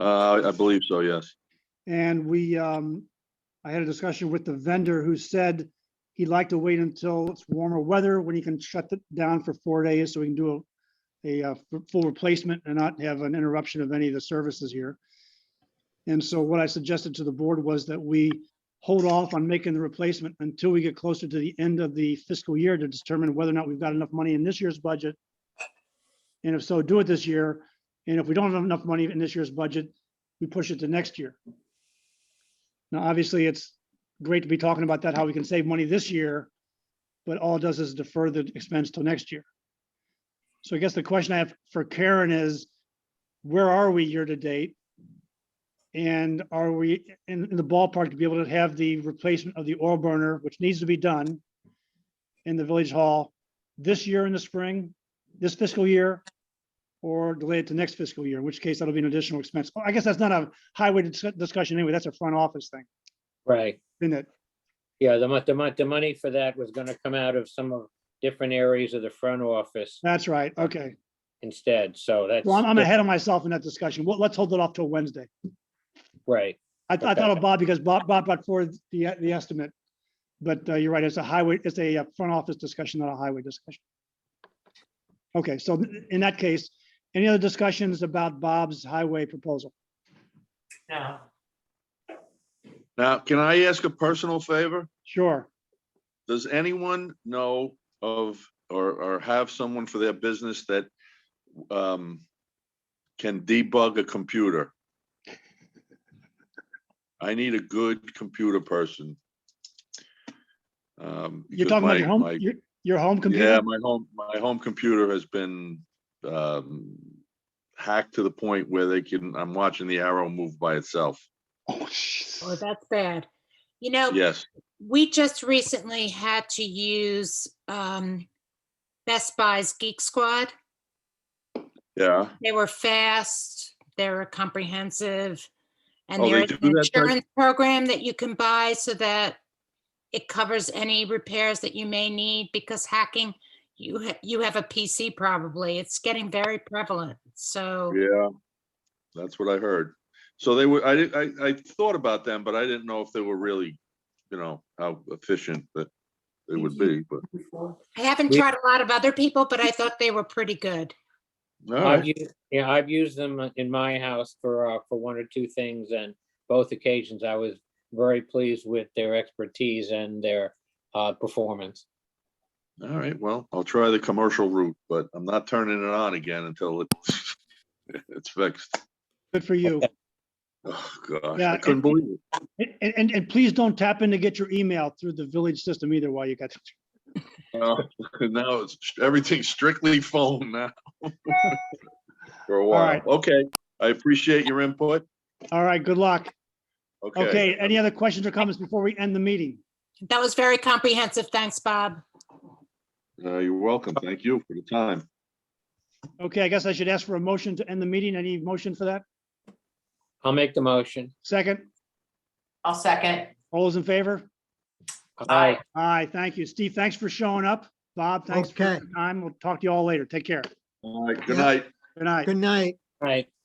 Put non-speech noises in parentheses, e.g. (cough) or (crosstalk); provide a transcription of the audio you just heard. Uh, I believe so, yes. And we, um, I had a discussion with the vendor who said he'd like to wait until it's warmer weather when he can shut it down for four days so we can do a, a uh, f- full replacement and not have an interruption of any of the services here. And so what I suggested to the board was that we hold off on making the replacement until we get closer to the end of the fiscal year to determine whether or not we've got enough money in this year's budget. And if so, do it this year. And if we don't have enough money in this year's budget, we push it to next year. Now, obviously, it's great to be talking about that, how we can save money this year, but all it does is defer the expense till next year. So I guess the question I have for Karen is, where are we year to date? And are we in, in the ballpark to be able to have the replacement of the oil burner, which needs to be done in the village hall this year in the spring, this fiscal year? Or delay it to next fiscal year, in which case that'll be an additional expense. I guess that's not a highway dis- discussion anyway. That's a front office thing, Right, isn't it? yeah, the mon, the mon, the money for that was gonna come out of some of different areas of the front office That's right. Okay. instead, so that's. Well, I'm, I'm ahead of myself in that discussion. Well, let's hold it off till Wednesday. Right, I, th- I thought of Bob because Bob, Bob brought forward the, the estimate. But uh, you're right, it's a highway, it's a uh, front office discussion, not a highway discussion. Okay, so in that case, any other discussions about Bob's highway proposal? No, Now, can I ask a personal favor? Sure. Does anyone know of or, or have someone for their business that um, can debug a computer? I need a good computer person. Um, You're because talking about your my- my- home, your, your home Yeah, computer? my home, my home computer has been um, hacked to the point where they can, I'm watching the arrow move by itself. (laughs) Oh, sh- Oh, that's bad. You know, Yes, we just recently had to use um, Best Buy's Geek Squad. yeah. They were fast, they were comprehensive. And Oh, they there's do an that type- insurance program that you can buy so that it covers any repairs that you may need because hacking, you, ha- you have a PC probably. It's getting very prevalent. So Yeah, that's what I heard. So they were, I, did- I, I thought about them, but I didn't know if they were really, you know, how efficient that they would be, but. before. I haven't We- tried a lot of other people, but I thought they were pretty good. all I've right. used, yeah, I've used them in my house for, uh, for one or two things, and both occasions I was very pleased with their expertise and their, uh, performance. All right, well, I'll try the commercial route, but I'm not turning it on again until it, (laughs) it's fixed. Good for you. Oh, gosh, Yeah, I couldn't it- believe it. And, and, and please don't tap in to get your email through the village system either while you got. Well, (laughs) Now it's everything strictly phone now. (laughs) For a while. right. Okay, I appreciate your input. All right, good luck. Okay. Okay, any other questions or comments before we end the meeting? That was very comprehensive. Thanks, Bob. Uh, You're welcome. Thank you for the time. Okay, I guess I should ask for a motion to end the meeting. Any motion for that? I'll make the motion. Second, I'll second. all those in favor? Aye. Aye, Aye, thank you. Steve, thanks for showing up. Bob, thanks for Okay. your time. We'll talk to you all later. Take care. All right, good Yeah. night. Good night. Good night. right.